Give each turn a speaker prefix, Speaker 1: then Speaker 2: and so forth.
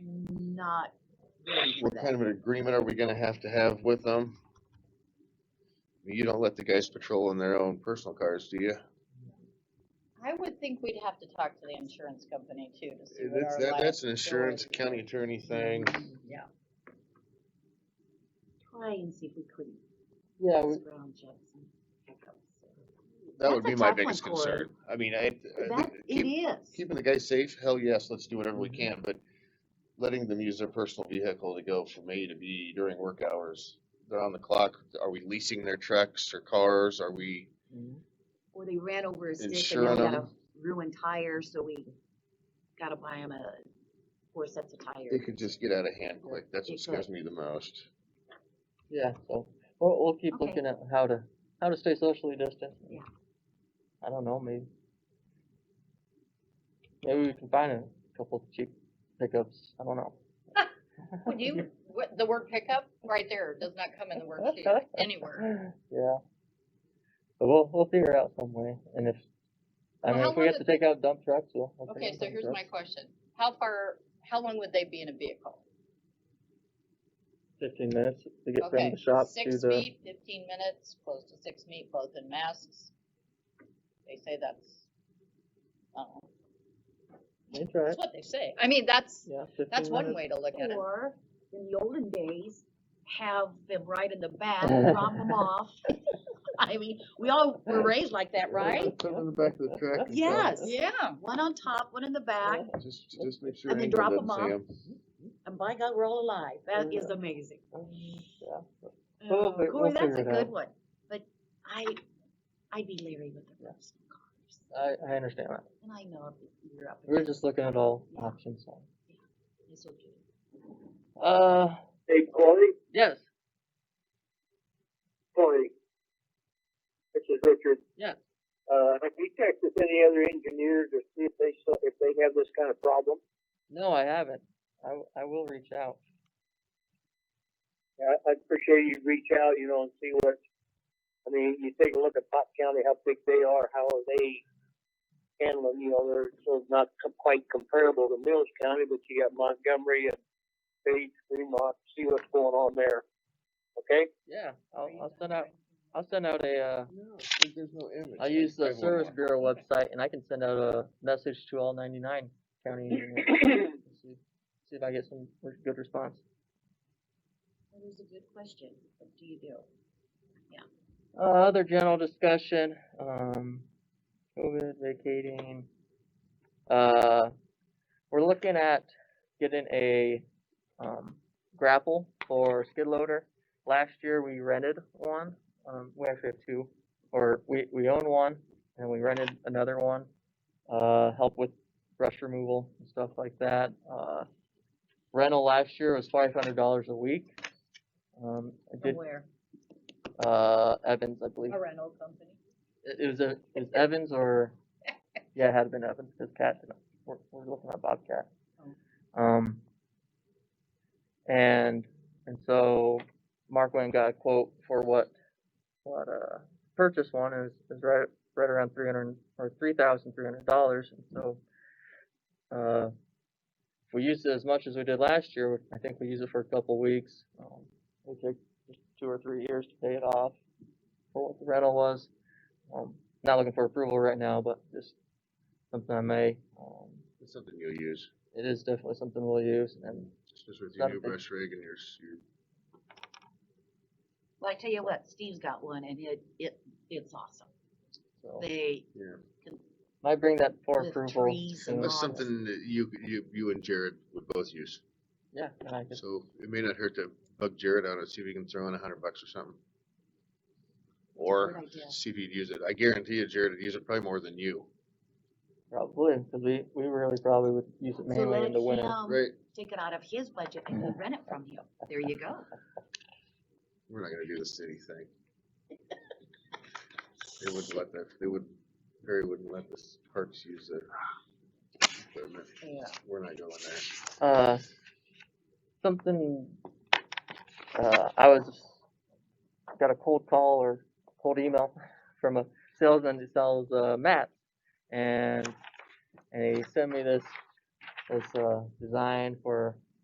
Speaker 1: not ready for
Speaker 2: What
Speaker 1: that.
Speaker 2: kind of an agreement are we gonna have to have with them? You don't let the guys patrol in their own personal cars, do you?
Speaker 1: I would think we'd have to talk to the insurance company too to see what
Speaker 2: That's,
Speaker 1: our
Speaker 2: that, that's an
Speaker 1: liability
Speaker 2: insurance,
Speaker 1: is.
Speaker 2: county attorney thing.
Speaker 1: Yeah,
Speaker 3: Try and see if we couldn't.
Speaker 4: Yeah,
Speaker 3: ask
Speaker 4: we-
Speaker 3: Brown Jackson.
Speaker 2: Uh, That would
Speaker 3: That's a
Speaker 2: be my
Speaker 3: tough one,
Speaker 2: biggest
Speaker 3: Corey.
Speaker 2: concern. I mean, I, I,
Speaker 3: That, it
Speaker 2: keep,
Speaker 3: is.
Speaker 2: keeping the guys safe, hell yes, let's do whatever we
Speaker 3: Mm-hmm.
Speaker 2: can, but letting them use their personal vehicle to go from A to B during work hours. They're on the clock. Are we leasing their trucks or cars? Are we
Speaker 1: Mm-hmm.
Speaker 3: Or they ran over a stick and now
Speaker 2: insuring
Speaker 3: we got a
Speaker 2: them?
Speaker 3: ruined tire, so we gotta buy them a four sets of
Speaker 2: It
Speaker 3: tires.
Speaker 2: could just get out of hand quick. That's
Speaker 3: It
Speaker 2: what
Speaker 3: could.
Speaker 2: scares me the most.
Speaker 4: yeah, so, we'll, we'll keep
Speaker 3: Okay.
Speaker 4: looking at how to, how to stay socially distant.
Speaker 3: Yeah.
Speaker 4: I don't know, maybe. Maybe we can find a couple cheap pickups, I don't know.
Speaker 1: would you, what, the word pickup, right there, does not come in the worksheet anywhere.
Speaker 4: Yeah. But we'll, we'll figure out some way, and if, I
Speaker 1: Well,
Speaker 4: mean,
Speaker 1: how
Speaker 4: if we
Speaker 1: long
Speaker 4: have to
Speaker 1: does
Speaker 4: take out dump trucks, we'll. we'll take
Speaker 1: Okay,
Speaker 4: out
Speaker 1: so
Speaker 4: dump
Speaker 1: here's
Speaker 4: trucks.
Speaker 1: my question, how far, how long would they be in a vehicle?
Speaker 4: Fifteen minutes to get from
Speaker 1: Okay,
Speaker 4: the shop to
Speaker 1: Six
Speaker 4: the,
Speaker 1: feet, fifteen minutes, close to six feet, both in masks. They say that's, I don't know,
Speaker 4: that's right,
Speaker 1: that's what they say, I mean, that's,
Speaker 4: yeah, fifteen minutes.
Speaker 1: that's one way to look at it.
Speaker 3: Or in the olden days, have them right in the back, drop them off. I mean, we all were raised like that, right?
Speaker 2: Put 'em in the back of the truck. and stuff.
Speaker 3: Yes.
Speaker 1: Yeah.
Speaker 3: One on top, one in the back,
Speaker 2: Just, just make sure.
Speaker 3: And then
Speaker 2: Angel
Speaker 3: drop 'em
Speaker 2: doesn't see
Speaker 3: off.
Speaker 2: 'em.
Speaker 3: and by God, we're all alive. That is
Speaker 4: Yeah.
Speaker 3: amazing.
Speaker 4: Mm, Yeah, but We'll
Speaker 3: Oh,
Speaker 4: fi- we'll
Speaker 3: Corey, that's
Speaker 4: figure
Speaker 3: a
Speaker 4: it out.
Speaker 3: good one, but I, I'd be leery with the rest of cars.
Speaker 4: I, I understand that,
Speaker 3: And I know if you're up.
Speaker 4: we were
Speaker 3: against
Speaker 4: just looking at all
Speaker 3: Yeah.
Speaker 4: options, so.
Speaker 3: it, it's okay.
Speaker 4: Uh,
Speaker 5: Hey, Corey,
Speaker 4: yes,
Speaker 5: Corey. This is Richard.
Speaker 4: Yeah.
Speaker 5: Uh, have you checked with any other engineers to see if they, saw- if they have this kind of problem?
Speaker 4: no, I haven't, I, w- I will reach out,
Speaker 5: I, I'd appreciate you reach out, you know, and see what, I mean, you take a look at Pop County, how big they are, how are they handling, you know, they're sort of not com- quite comparable to Mills County, but you got Montgomery and Page, Fremont, see what's going on there. Okay?
Speaker 4: yeah, I'll, I'll send out, I'll send out a, uh,
Speaker 2: No, there's no image.
Speaker 4: I use the
Speaker 2: want
Speaker 4: Service
Speaker 2: one.
Speaker 4: Bureau website, and I can send out a message to all ninety-nine county engineers, see, see if I get some re- good response.
Speaker 3: That is a good question. What do you do?
Speaker 4: Uh, other general discussion, um, COVID, vacating. Uh, we're looking at getting a, um, grapple or skid loader. Last year we rented one, um, we actually have two, or we, we own one and we rented another one. Uh, help with brush removal and stuff like that. Uh, rental last year was five hundred dollars a week. Um, I
Speaker 3: From
Speaker 4: did,
Speaker 3: where?
Speaker 4: uh, Evans, I believe
Speaker 1: A rental company.
Speaker 4: it it was a it was Evans or yeah, it had been Evans because Cat we're, we're looking at Bobcat. Um, and and so Mark went and got a quote for what what uh purchase one is is right right around three hundred or three thousand three hundred dollars, and so uh if we used it as much as we did last year, I think we used it for a couple weeks. Um, it took two or three years to pay it off for what the rental was. Um, not looking for approval right now, but just something I may. Um,
Speaker 2: It's something you'll use,
Speaker 4: it is definitely something we'll use, and
Speaker 2: especially with your new
Speaker 4: Something.
Speaker 2: brush rig and your, s- your
Speaker 3: Well, I tell you what, Steve's got one and it, it, it's awesome.
Speaker 4: so
Speaker 3: They,
Speaker 4: might bring that for
Speaker 3: With
Speaker 4: approval.
Speaker 3: trees and
Speaker 4: soon.
Speaker 2: That's
Speaker 3: Nice.
Speaker 2: something that you, you, you and Jared would both use,
Speaker 4: Yeah, and I just
Speaker 2: so it may not hurt to bug Jared on it, see if he can throw in a hundred bucks or something. Or
Speaker 3: good idea.
Speaker 2: see if he'd use it, I guarantee you Jared would use it probably more than you,
Speaker 4: probably because we we really probably would use it
Speaker 3: so
Speaker 4: mainly
Speaker 3: let
Speaker 4: in the winter.
Speaker 3: him
Speaker 2: right?
Speaker 3: take it out of his budget and we'll rent it from you. There you go.
Speaker 2: We're not gonna do the city thing. They wouldn't let that, they would, Perry wouldn't let the s- parks use the equipment,
Speaker 3: Yeah.
Speaker 2: we're not going there.
Speaker 4: Uh, something. Uh, I was got a cold call or cold email from a salesman who sells uh, mats, and and he sent me this this uh, design for